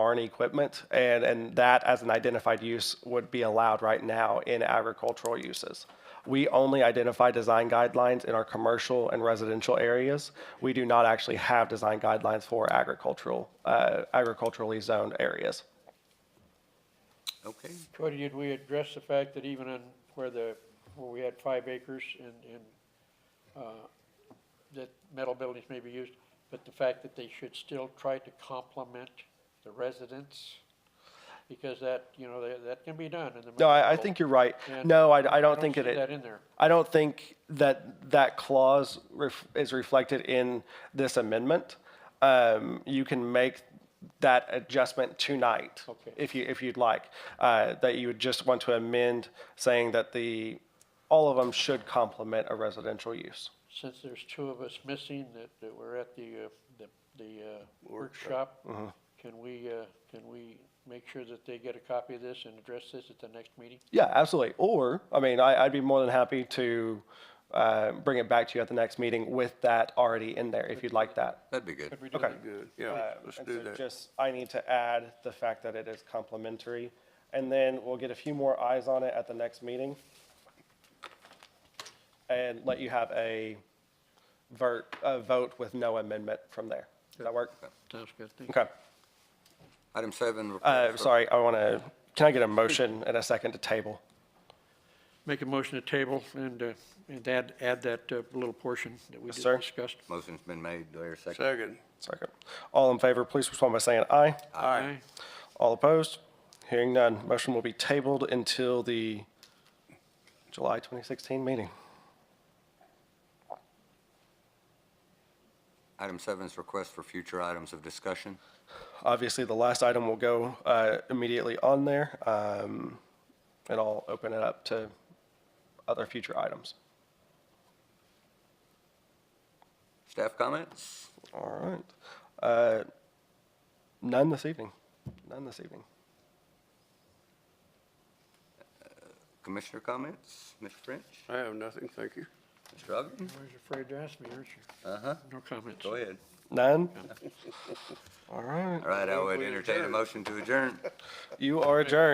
barn equipment, and, and that as an identified use would be allowed right now in agricultural uses. We only identify design guidelines in our commercial and residential areas. We do not actually have design guidelines for agricultural, uh, agriculturally zoned areas. Okay, Cody, did we address the fact that even on where the, where we had five acres and, and, uh, that metal buildings may be used, but the fact that they should still try to complement the residents? Because that, you know, that, that can be done in the. No, I, I municipal- think you're right. and No, I, I don't think see that it. That in there. I don't think that that clause ref- is reflected in this amendment. Um, you can make that adjustment tonight Okay. if you if you'd like. Uh, that you would just want to amend saying that the all of them should complement a residential use. Since there's two of us missing that, that were at the, uh, the, the, uh, workshop, Uh-huh. can we, uh, can we make sure that they get a copy of this and address this at the next meeting? Yeah, absolutely. Or I mean, I, I'd be more than happy to uh, bring it back to you at the next meeting with that already in there if you'd like that. that'd be good. Could we do Okay. that? Good, yeah, Uh, let's and do so that. Just, I need to add the fact that it is complimentary, and then we'll get a few more eyes on it at the next meeting. And let you have a vert, a vote with no amendment from there. Does that work? Sounds good. Thank you. Okay. Item seven. report Uh, from- sorry, I want to, can I get a motion and a second to table? Make a motion to table and, uh, and add, add that uh, little portion that we Yes, just sir. discussed. Motion's been made, do I hear a second? Second. Second. All in favor, please respond by saying aye. Aye. All opposed? Hearing none. Motion will be tabled until the July 2016 meeting. Item seven is request for future items of discussion. Obviously, the last item will go uh, immediately on there, um, and I'll open it up to other future items. Staff comments? All right. Uh, None this evening. None this evening. Commissioner comments? Mr. French? I have nothing, thank you. Mr. Ogden? I was afraid to ask me, aren't you? Uh-huh, No comments. go ahead. None? All right. All right, I would entertain a motion to adjourn. You are adjourned.